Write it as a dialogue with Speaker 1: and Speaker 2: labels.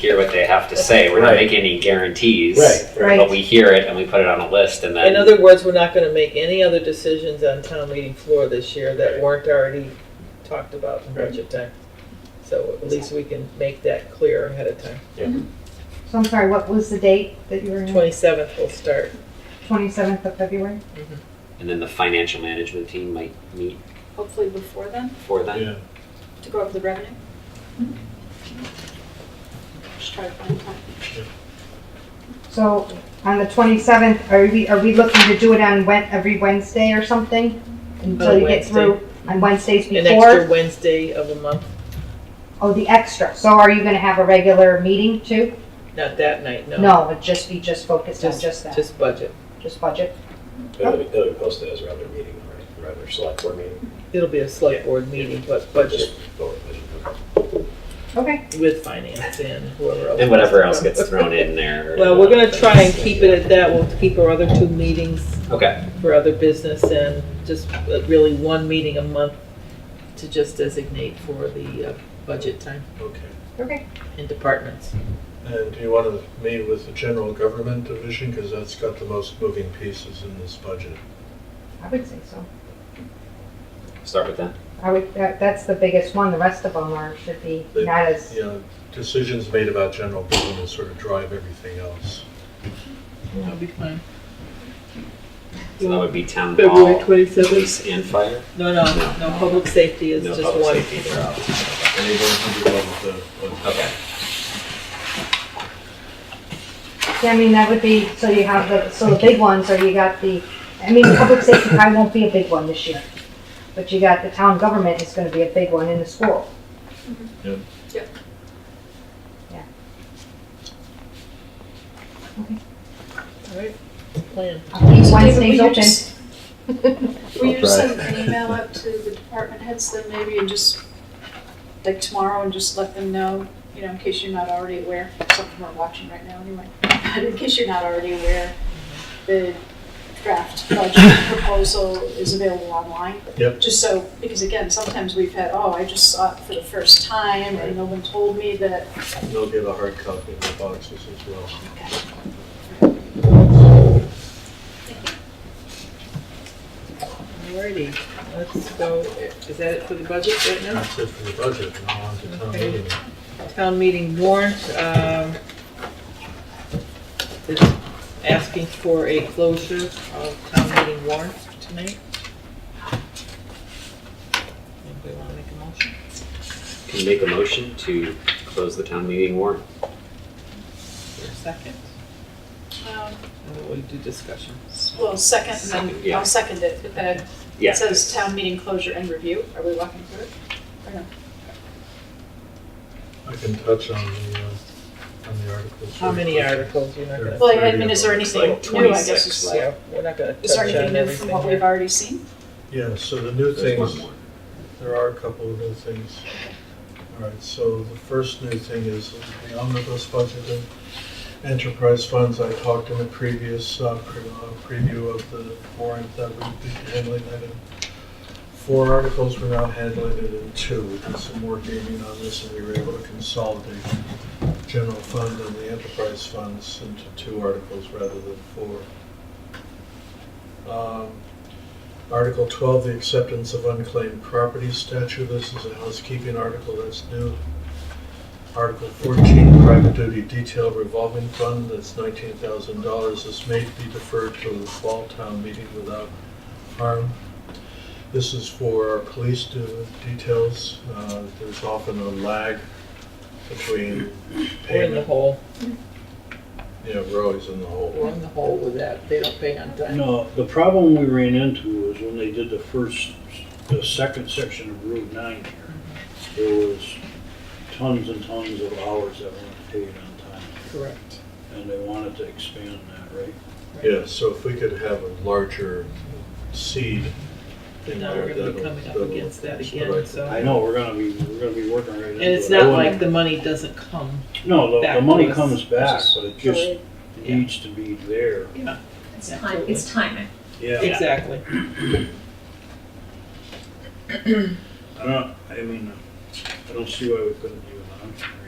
Speaker 1: hear what they have to say. We're not
Speaker 2: Right.
Speaker 1: making any guarantees.
Speaker 2: Right,
Speaker 3: right.
Speaker 1: But we hear it and we put it on a list and
Speaker 3: In
Speaker 1: then
Speaker 3: other words, we're not gonna make any other decisions on town meeting floor this year that weren't already talked about in budget time. So at least we can make that clear ahead of time.
Speaker 4: So I'm sorry, what was the date that you were in?
Speaker 3: Twenty-seventh will start.
Speaker 4: Twenty-seventh of February?
Speaker 1: and then the financial management team might meet
Speaker 5: hopefully before then,
Speaker 1: before then.
Speaker 2: Yeah.
Speaker 5: to go over the revenue. Just try to find time.
Speaker 4: So on the twenty-seventh, are we, are we looking to do it on Wed, every Wednesday or something? Until you get
Speaker 3: Wednesday.
Speaker 4: through, on Wednesdays
Speaker 3: An extra
Speaker 4: before?
Speaker 3: Wednesday of a month,
Speaker 4: Oh, the extra. So are you gonna have a regular meeting too?
Speaker 3: not that night, no.
Speaker 4: No, it'd just be just focused on
Speaker 3: Just-
Speaker 4: just that,
Speaker 3: Just budget.
Speaker 4: just budget.
Speaker 6: It'll be, it'll be posted as a regular meeting, right, regular select board meeting,
Speaker 3: It'll be a select board meeting, but budget
Speaker 6: just vote.
Speaker 4: Okay,
Speaker 3: with finance and whoever else.
Speaker 1: And whatever else gets thrown in there.
Speaker 3: Well, we're gonna try and keep it at that. We'll keep our other two meetings
Speaker 1: Okay,
Speaker 3: for other business and just uh, really one meeting a month to just designate for the uh, budget time
Speaker 2: Okay.
Speaker 4: okay.
Speaker 3: in departments.
Speaker 2: And do you want to meet with the general government division, because that's got the most moving pieces in this budget?
Speaker 4: I would say so.
Speaker 1: start with that.
Speaker 4: I would, that, that's the biggest one. The rest of them are, should be
Speaker 2: They-
Speaker 4: not as,
Speaker 2: You know, decisions made about general government sort of drive everything else.
Speaker 3: That'll be fine.
Speaker 1: So that would be town
Speaker 3: February
Speaker 1: hall,
Speaker 3: twenty-seventh?
Speaker 1: police and fire.
Speaker 3: No, no, no, public safety is
Speaker 1: No
Speaker 3: just
Speaker 1: public
Speaker 3: one.
Speaker 1: safety, they're out.
Speaker 2: And you don't have to go with the- with-
Speaker 1: Okay,
Speaker 4: Yeah, I mean, that would be, so you have the, so the big ones are you got the, I mean, public safety probably won't be a big one this year. But you got the town government is gonna be a big one in the school.
Speaker 2: Yep.
Speaker 5: Yep.
Speaker 4: Yeah.
Speaker 3: All right, plan.
Speaker 4: I'll keep
Speaker 5: So David,
Speaker 4: Wednesdays
Speaker 5: will you
Speaker 4: open.
Speaker 5: just- Will you
Speaker 2: I'll
Speaker 5: just
Speaker 2: try.
Speaker 5: send an email out to the department heads then maybe and just, like tomorrow and just let them know, you know, in case you're not already aware, something we're watching right now anyway. But in case you're not already aware, the draft budget proposal is available online.
Speaker 2: Yep.
Speaker 5: Just so, because again, sometimes we've had, oh, I just saw it for the first time and no one told me that,
Speaker 2: They'll get a hard copy of the boxes as well.
Speaker 3: Alrighty, let's go, is that it for the budget right now?
Speaker 2: That's it for the budget, now on to town
Speaker 3: Okay.
Speaker 2: meeting.
Speaker 3: Town meeting warrant, um, it's asking for a closure of town meeting warrant tonight. Anybody wanna make a motion?
Speaker 1: can you make a motion to close the town meeting warrant?
Speaker 3: Your second,
Speaker 5: um,
Speaker 3: and then we'll do discussion.
Speaker 5: well, second, and then
Speaker 1: Yeah.
Speaker 5: I'll second it, but then
Speaker 1: Yeah.
Speaker 5: It says town meeting closure and review. Are we walking through it?
Speaker 2: I can touch on the, uh, on the articles.
Speaker 3: How many
Speaker 2: really quick.
Speaker 3: articles, you're not gonna,
Speaker 2: There.
Speaker 5: Well, I mean, is there
Speaker 1: It's
Speaker 5: anything
Speaker 1: like
Speaker 5: new, I guess?
Speaker 1: 26,
Speaker 5: is-
Speaker 1: like-
Speaker 3: yeah, we're not gonna
Speaker 5: Is there
Speaker 3: touch on
Speaker 5: anything new from
Speaker 3: everything
Speaker 5: what we've
Speaker 3: here.
Speaker 5: already seen?
Speaker 2: Yeah, so the new
Speaker 1: There's one
Speaker 2: things,
Speaker 1: more.
Speaker 2: there are a couple of new things. All right, so the first new thing is the omnibus budget and enterprise funds. I talked in the previous uh, pre- uh, preview of the warrant that we'd be handling that in four articles. We're now handling it in two. We did some more gaming on this and we were able to consolidate general fund and the enterprise funds into two articles rather than four. Um, Article 12, the acceptance of unclaimed property statute. This is a housekeeping article that's new. Article 14, private duty detail revolving fund, that's $19,000. This may be deferred to the fall town meeting without harm. This is for our police de- details. Uh, There's often a lag between
Speaker 3: We're in the
Speaker 2: payment.
Speaker 3: hole,
Speaker 2: Yeah, we're always in the
Speaker 3: we're
Speaker 2: hole.
Speaker 3: in the hole with that, they don't pay on time.
Speaker 7: No, the problem we ran into was when they did the first, the second section of Route 9 here, there was tons and tons of hours that weren't paid on time,
Speaker 3: Correct.
Speaker 7: and they wanted to expand that, right?
Speaker 2: Yeah, so if we could have a larger seed
Speaker 3: But
Speaker 2: in
Speaker 3: now
Speaker 2: there,
Speaker 3: we're gonna be
Speaker 2: that'll-
Speaker 3: coming up
Speaker 2: that'll-
Speaker 3: again, that
Speaker 2: that's the
Speaker 3: again,
Speaker 2: right
Speaker 3: so.
Speaker 7: I know, we're gonna be, we're gonna be working right
Speaker 3: And
Speaker 7: into it.
Speaker 3: it's
Speaker 7: I
Speaker 3: not
Speaker 7: wouldn't-
Speaker 3: like the money doesn't come,
Speaker 7: No, the,
Speaker 3: back
Speaker 7: the money
Speaker 3: was-
Speaker 7: comes back, but it just
Speaker 3: Yeah.
Speaker 7: needs to be there.
Speaker 3: yeah,
Speaker 8: It's time, it's timing.
Speaker 7: Yeah,
Speaker 3: exactly.
Speaker 7: I don't, I mean, I don't see why we couldn't do it, huh?